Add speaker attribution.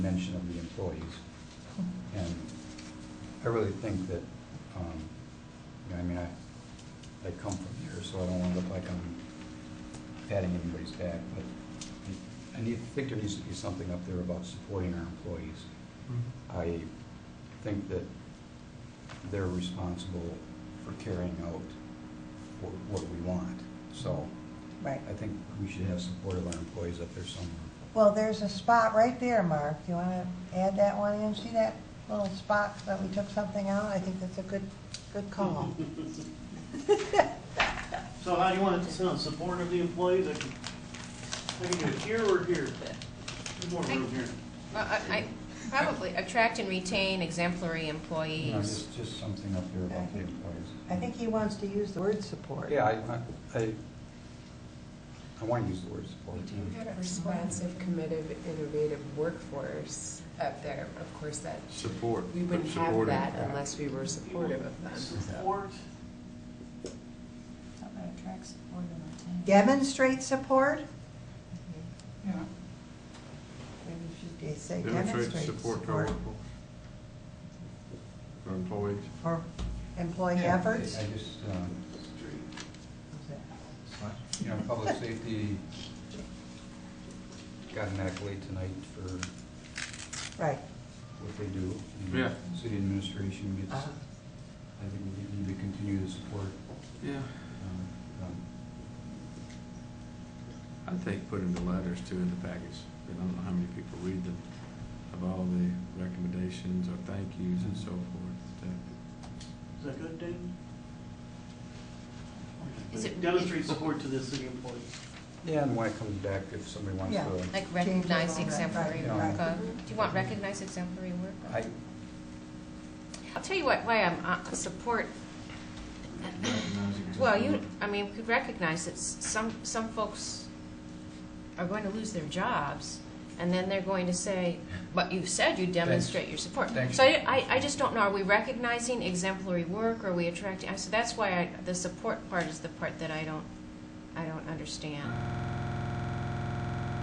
Speaker 1: mention of the employees. And I really think that, um, you know, I mean, I, I come from here, so I don't want to look like I'm patting anybody's back, but I- I need, think there needs to be something up there about supporting our employees. I think that they're responsible for carrying out what, what we want. So
Speaker 2: Right.
Speaker 1: I think we should have support of our employees up there somewhere.
Speaker 2: Well, there's a spot right there, Mark. You want to add that one in? See that little spot that we took something out? I think that's a good, good call.
Speaker 3: So how do you want it to sound, support of the employees, I can, I can do it here or here? There's more room here.
Speaker 4: Well, I, I- probably attract and retain exemplary
Speaker 1: You know,
Speaker 4: employees.
Speaker 1: just, just something up there about the employees.
Speaker 2: I think he wants to use the word support.
Speaker 1: Yeah, I, I, I want to use the word support.
Speaker 5: We do have a responsive, committed, innovative workforce up there. Of course, that,
Speaker 6: Support.
Speaker 5: we wouldn't have
Speaker 6: supporting.
Speaker 5: that unless we were supportive of them. so.
Speaker 3: Support,
Speaker 7: Something that attracts support and retains.
Speaker 2: Demonstrate support?
Speaker 7: Yeah.
Speaker 2: Maybe we should say
Speaker 6: Demonstrate
Speaker 2: demonstrate
Speaker 6: support to our
Speaker 2: support.
Speaker 6: workforce. Our employees.
Speaker 2: Or employee
Speaker 1: Yeah,
Speaker 2: efforts?
Speaker 1: I just, um,
Speaker 3: street,
Speaker 1: you know, public safety got an accolade tonight for what
Speaker 2: Right.
Speaker 1: they do. and
Speaker 6: Yeah.
Speaker 1: City administration gets, I
Speaker 5: Uh-huh.
Speaker 1: think we need to continue to support.
Speaker 6: Yeah.
Speaker 1: um, um,
Speaker 6: I think putting the letters too in the package, I don't know how many people read them, of all the recommendations or thank yous and so forth.
Speaker 3: is that good, David?
Speaker 4: Is it-
Speaker 3: Demonstrate support to the city employees.
Speaker 1: Yeah, and when it comes back, if somebody wants
Speaker 2: Yeah.
Speaker 1: to,
Speaker 4: Like recognize
Speaker 2: Change it a little bit,
Speaker 4: exemplary
Speaker 1: right,
Speaker 4: work
Speaker 2: right.
Speaker 4: of. Do you want recognize exemplary work
Speaker 1: I,
Speaker 4: of? I'll tell you what, why I'm, uh, support,
Speaker 6: Recognizing-
Speaker 4: well, you, I mean, we could recognize that s- some, some folks are going to lose their jobs, and then they're going to say, but you said you demonstrate your support.
Speaker 1: Thanks.
Speaker 4: So I, I- I just don't know, are we recognizing exemplary work, are we attracting, so that's why I, the support part is the part that I don't, I don't understand.
Speaker 6: Uh,